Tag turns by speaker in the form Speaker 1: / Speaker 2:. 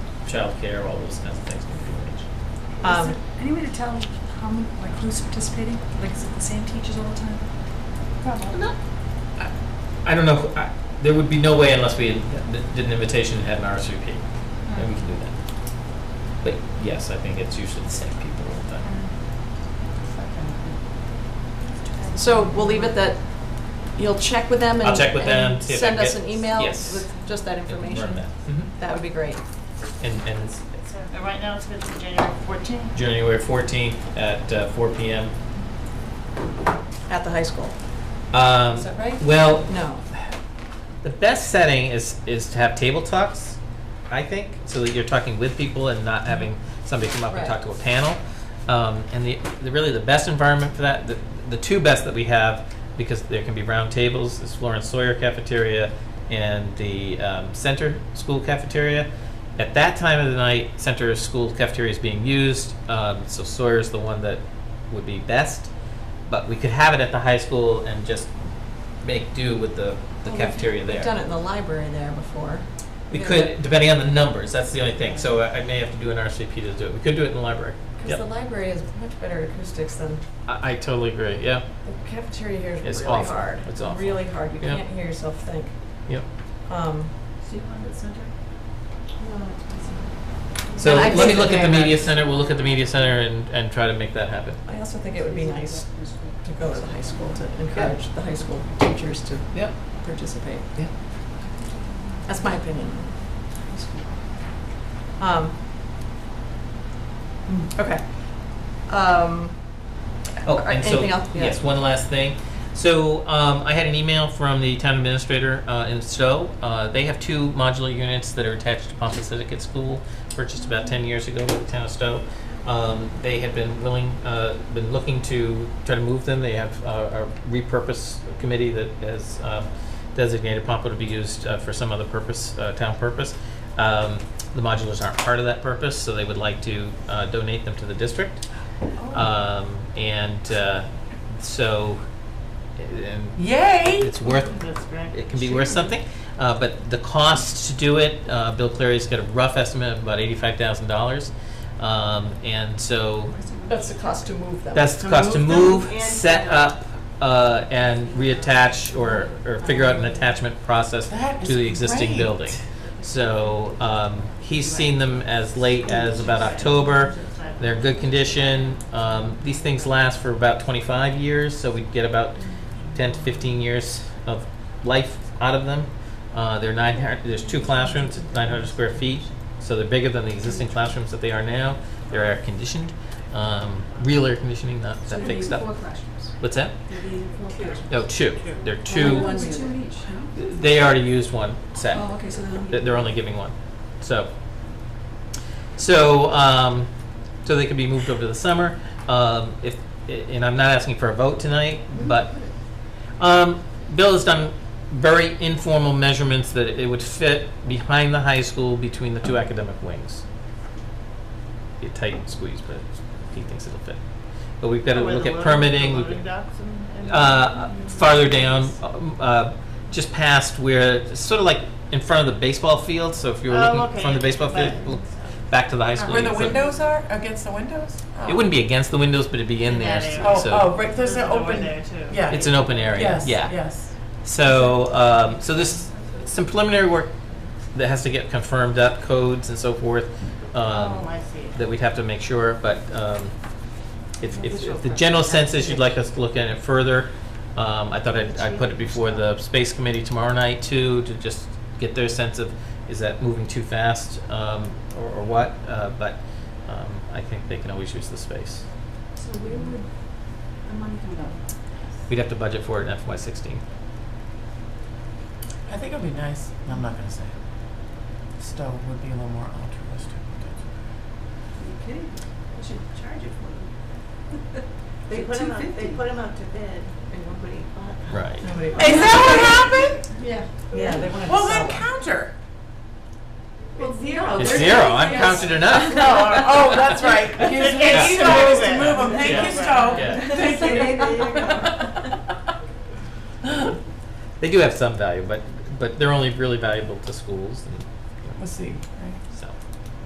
Speaker 1: childcare, all those kinds of things can be arranged.
Speaker 2: Um,
Speaker 3: Is there any way to tell how many, like who's participating? Like is it the same teachers all the time? Probably.
Speaker 1: I- I don't know, who- I- there would be no way unless we had- th- did an invitation and had an RSVP, then
Speaker 2: Hmm.
Speaker 1: we can do that. But yes, I think it's usually the same people all the time.
Speaker 2: So we'll leave it that you'll check with them and.
Speaker 1: I'll check with them,
Speaker 2: and
Speaker 1: see if I
Speaker 2: Send us
Speaker 1: get-
Speaker 2: an email
Speaker 1: yes.
Speaker 2: with just that information.
Speaker 1: Learn that. Mhm.
Speaker 2: That would be great.
Speaker 1: And, and it's
Speaker 4: So uh, right now it's good to January 14.
Speaker 1: January fourteenth at uh, four P M.
Speaker 2: At the high school. Is that right?
Speaker 1: Um, Well,
Speaker 2: No.
Speaker 1: the best setting is, is to have table talks, I think, so that you're talking with people and not having somebody come up and
Speaker 2: Right.
Speaker 1: talk to a panel. Um, and the, the really the best environment for that, the, the two best that we have, because there can be round tables, is Florence Sawyer Cafeteria and the um, Center School Cafeteria. At that time of the night, Center School Cafeteria is being used, um, so Sawyer's the one that would be best. But we could have it at the high school and just make do with the, the
Speaker 2: Well, we've-
Speaker 1: cafeteria there.
Speaker 2: We've done it in the library there before.
Speaker 1: We
Speaker 2: Yeah.
Speaker 1: could, depending on the numbers, that's the only thing, so I I may have to do an RSVP to do it, we could do it in the library.
Speaker 5: Because the
Speaker 1: Yep.
Speaker 5: library has much better acoustics than,
Speaker 1: I, I totally agree, yeah,
Speaker 5: the cafeteria here
Speaker 1: It's
Speaker 5: is really
Speaker 1: awful.
Speaker 5: hard.
Speaker 1: It's awful.
Speaker 5: Really hard, you
Speaker 1: Yeah.
Speaker 5: can't hear yourself think.
Speaker 1: yep.
Speaker 5: Um,
Speaker 4: Do you want the center?
Speaker 1: So
Speaker 2: And I
Speaker 1: let me
Speaker 2: think
Speaker 1: look at
Speaker 2: that
Speaker 1: the
Speaker 2: they-
Speaker 1: media center, we'll look at the media center and, and try to make that happen.
Speaker 5: I also think it would be nice to go to the high school, to encourage the high school teachers to
Speaker 1: Yep,
Speaker 5: participate.
Speaker 1: yeah.
Speaker 5: That's my opinion.
Speaker 2: Um, mm,
Speaker 5: hmm,
Speaker 2: Okay. Um,
Speaker 1: Oh,
Speaker 2: Or
Speaker 1: and so,
Speaker 2: anything else? Yeah.
Speaker 1: yes, one last thing. So um, I had an email from the town administrator uh, in Stowe. Uh, they have two modular units that are attached to Pompacitic at school, purchased about 10 years ago by the town of Stowe. Um, they have been willing, uh, been looking to try to move them. They have uh, a repurpose committee that has uh, designated Pompo to be used uh, for some other purpose, uh, town purpose. Um, the modulars aren't part of that purpose, so they would like to uh, donate them to the district. Um, and uh, so, and
Speaker 2: Yay!
Speaker 1: it's worth,
Speaker 4: That's great.
Speaker 1: it can be worth something. Uh, but the cost to do it, uh, Bill Clary's got a rough estimate of about eighty-five thousand dollars. Um, and so
Speaker 5: That's the cost to move them.
Speaker 1: that's the cost to move, set up, uh, and reattach or, or figure out an attachment process to the existing building. So, um, he's seen them as late as about October. They're in good condition. Um, these things last for about 25 years, so we get about 10 to 15 years of life out of them. Uh, they're nine. hun- There's two classrooms, 900 square feet, so they're bigger than the existing classrooms that they are now. They're air conditioned, um, real air conditioning, not that fake stuff. What's that? No, two. They're two.
Speaker 5: One's two each.
Speaker 1: They already used one set.
Speaker 5: Oh, okay, so then.
Speaker 1: They- They're only giving one. So, so, um, so they could be moved over to the summer. Um, if, and I'm not asking for a vote tonight, but, um, Bill has done very informal measurements that it would fit behind the high school between the two academic wings. Be a tight squeeze, but he thinks it'll fit. But we've got to
Speaker 4: Where the
Speaker 1: look at
Speaker 4: loading-
Speaker 1: permitting.
Speaker 4: the
Speaker 1: we've
Speaker 4: loading
Speaker 1: got-
Speaker 4: docks and- and-
Speaker 1: uh, farther down, um, uh, just past where, sort of like in front of the baseball field. So if you were
Speaker 4: Oh,
Speaker 1: looking
Speaker 4: okay.
Speaker 1: from the baseball field,
Speaker 4: Back.
Speaker 1: look back to the high school.
Speaker 6: Where
Speaker 1: you
Speaker 6: the
Speaker 1: could-
Speaker 6: windows are, against the windows? Oh.
Speaker 1: It wouldn't be against the windows, but it'd be in
Speaker 4: In
Speaker 1: there.
Speaker 4: that area.
Speaker 6: Oh,
Speaker 1: so
Speaker 6: oh, right, there's
Speaker 4: a
Speaker 6: an
Speaker 4: door
Speaker 6: open.
Speaker 4: there, too.
Speaker 6: Yeah.
Speaker 1: it's an open area.
Speaker 6: Yes,
Speaker 1: yeah.
Speaker 6: yes.
Speaker 1: So, um, so this some preliminary work that has to get confirmed up, codes and so forth. Um,
Speaker 4: Oh, I see.
Speaker 1: that we'd have to make sure, but um, if, if if the general sense is you'd like us to look at it further, um, I thought I'd, I'd put it before the space committee tomorrow night too, to just get their sense of, is that moving too fast um, or or what? Uh, But um, I think they can always use the space.
Speaker 3: So where would the money come from?
Speaker 1: We'd have to budget for it in FY sixteen.
Speaker 6: I think it'd be nice, I'm not gonna say it. Stowe would be a little more altruistic.
Speaker 3: Are you kidding? I should charge it for them.
Speaker 7: They put
Speaker 3: two
Speaker 7: them out, they
Speaker 3: fifty.
Speaker 7: put 'em out to bid and nobody bought them.
Speaker 1: Right.
Speaker 5: Nobody-
Speaker 6: Is that what happened?
Speaker 3: Yeah.
Speaker 5: Yeah, they wanted to
Speaker 6: Well,
Speaker 5: sell
Speaker 6: then
Speaker 5: it.
Speaker 6: counter.
Speaker 3: Well,
Speaker 6: Oh,
Speaker 3: zero.
Speaker 1: It's
Speaker 3: They're
Speaker 1: zero,
Speaker 3: saying
Speaker 1: I'm
Speaker 3: yes.
Speaker 1: counted enough.
Speaker 6: No, oh, that's right. Here's
Speaker 4: Yeah.
Speaker 6: here's the ways to
Speaker 4: Yeah.
Speaker 6: move 'em. Thank you,
Speaker 4: Yeah.
Speaker 1: Yeah.
Speaker 6: Stowe.
Speaker 3: Thank you.
Speaker 7: There you go.
Speaker 1: They do have some value, but, but they're only really valuable to schools and
Speaker 6: Let's see, right?